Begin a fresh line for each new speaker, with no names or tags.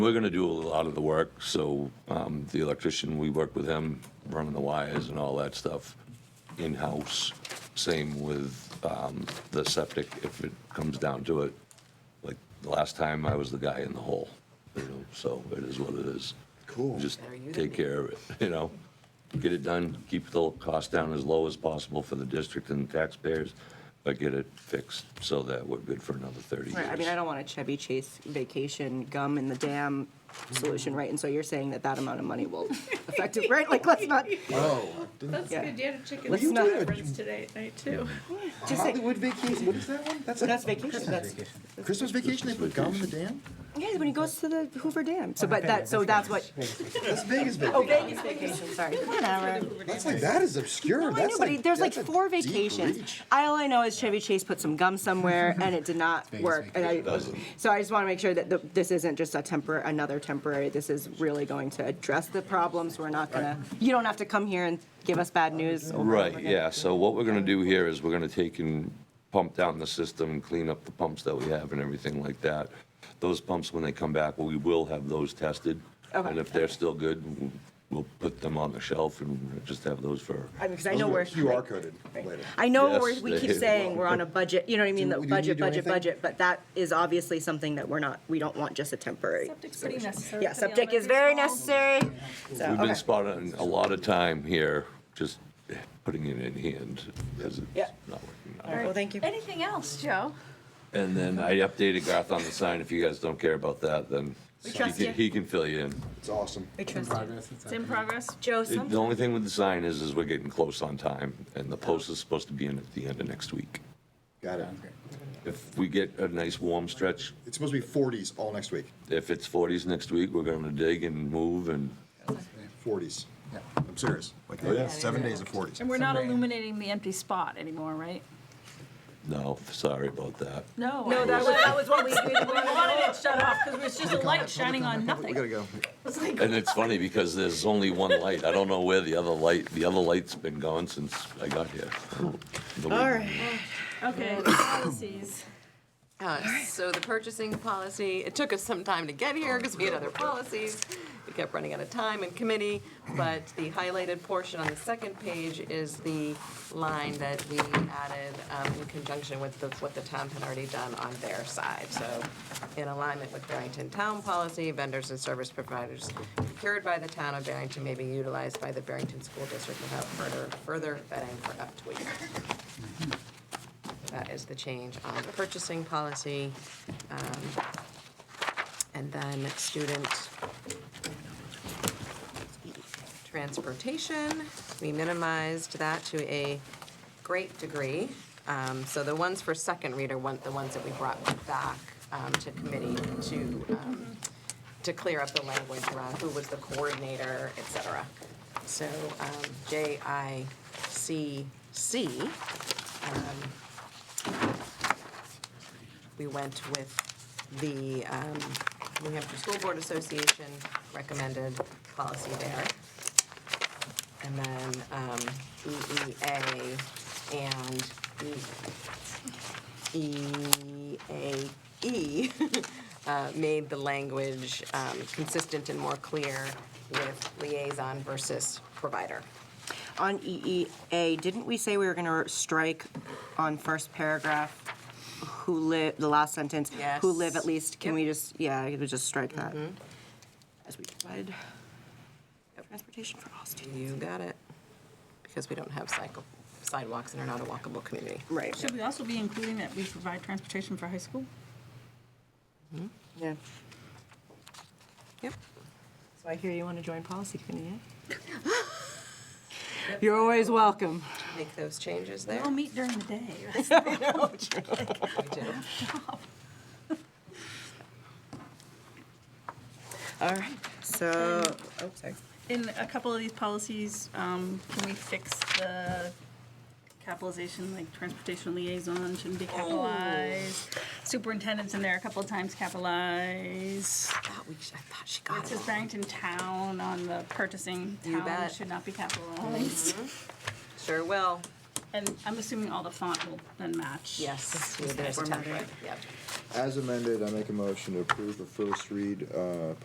We're going to do a lot of the work, so um, the electrician, we work with him, running the wires and all that stuff in-house. Same with um, the septic, if it comes down to it. Like, the last time, I was the guy in the hole, you know, so it is what it is.
Cool.
Just
Better you than
take
me.
care of it, you know? Get it done, keep the cost down as low as possible for the district and taxpayers, but get it fixed so that we're good for another 30 years.
Right, I mean, I don't want a Chevy Chase vacation gum in the dam solution, right? And so you're saying that that amount of money will affect it, right? Like, let's not,
Oh,
That's
Yeah.
good. You had a chicken
Let's
soup
not-
reference today at night too.
just say,
Hollywood vacation. What is that one? That's like
that's vacation, that's,
Christmas vacation. They put gum in the
Vacation.
dam.
yeah, when he goes to the Hoover Dam, so, but that, so that's what,
That's Vegas vacation.
oh, Vegas vacation, sorry, whatever.
That's like that is obscure.
No, I
that's
know, but he- there's like
that's a
four
deep
vacations.
reach.
All I know is Chevy Chase put some gum somewhere and it did not work. And I, so I just want to make sure that the, this isn't just a temper, another temporary. This is really going to address the problems. We're not gonna, you don't have to come here and give us bad news. over and over
Right,
again.
yeah, so what we're gonna do here is we're gonna take and pump down the system, clean up the pumps that we have and everything like that. Those pumps, when they come back, we will have those tested.
Okay.
And if they're still good, we'll- we'll put them on the shelf and just have those for,
I mean, because I know we're.
QR coded later.
I know
Yes,
we're, we keep
they
saying we're on a budget, you know what I mean,
Do
the
we- do we
budget,
do
budget,
anything?
budget, but that is obviously something that we're not, we don't want just a temporary.
Septic's pretty necessary.
Yeah,
for the
septic is
elementary
very
school.
necessary. So,
we've
okay.
been spotting a lot of time here, just putting it in hand, as
Yeah.
it's not working out.
All right, well, thank you.
Anything else, Joe?
And then I updated Garth on the sign, if you guys don't care about that, then he
trust
can-
you.
he can fill you in.
It's awesome.
We trust you.
progress.
It's in progress.
Joe,
It-
sometimes.
The only thing with the sign is, is we're getting close on time, and the post is supposed to be in at the end of next week.
Got it.
If we get a nice warm stretch,
It's supposed to be 40s all next week.
if it's 40s next week, we're going to dig and move and
40s. Yeah. I'm serious. Like yeah. seven days of 40s.
And we're not illuminating the empty spot anymore, right?
no, sorry about that.
No.
No, that was, that was what we, we we
I wanted it shut off because it was just a light shining on
We
nothing.
gotta go.
And it's funny because there's only one light. I don't know where the other light, the other light's been gone since I got here.
All right.
Okay, policies.
Uh, So the purchasing policy, it took us some time to get here because we had other policies. We kept running out of time in committee, but the highlighted portion on the second page is the line that we added um, in conjunction with the- what the town had already done on their side. So in alignment with Barrington Town Policy, vendors and service providers procured by the town of Barrington may be utilized by the Barrington School District without further, further vetting for up to a year. That is the change on the purchasing policy. Um, And then student transportation, we minimized that to a great degree. Um, So the ones for second reader, one- the ones that we brought back um, to committee to, um, to clear up the language around who was the coordinator, et cetera. So um, JICC, we went with the um, New Hampshire School Board Association recommended policy there. And then um, EEA and E- EAE uh, made the language um, consistent and more clear with liaison versus provider.
On EEA, didn't we say we were gonna strike on first paragraph, who live, the last sentence? Who live at
Yes.
least, can we
Yep.
just, yeah, we just strike that? As we provide transportation for all students.
You got it? Because we don't have cycle sidewalks and are not a walkable community.
Right,
Should we also be including that we provide transportation for high school?
yeah.
Yep.
So I hear you wanna join policy committee, yeah? You're always welcome.
Make those changes
They
there.
all meet during the day.
We do.
All right, so, oh, sorry.
In a couple of these policies, um, can we fix the capitalization, like transportation liaison shouldn't
Oh.
be capitalized? Superintendent's in there a couple of times capitalized.
thought we, I thought she
It
got it.
says Barrington Town on the purchasing,
You
town
bet. Mm-hmm.
should not be capitalized.
Sure will.
And I'm assuming all the font will then match.
Yes.
There's a template.
Yep.
As amended, I make a motion to approve the first read, uh,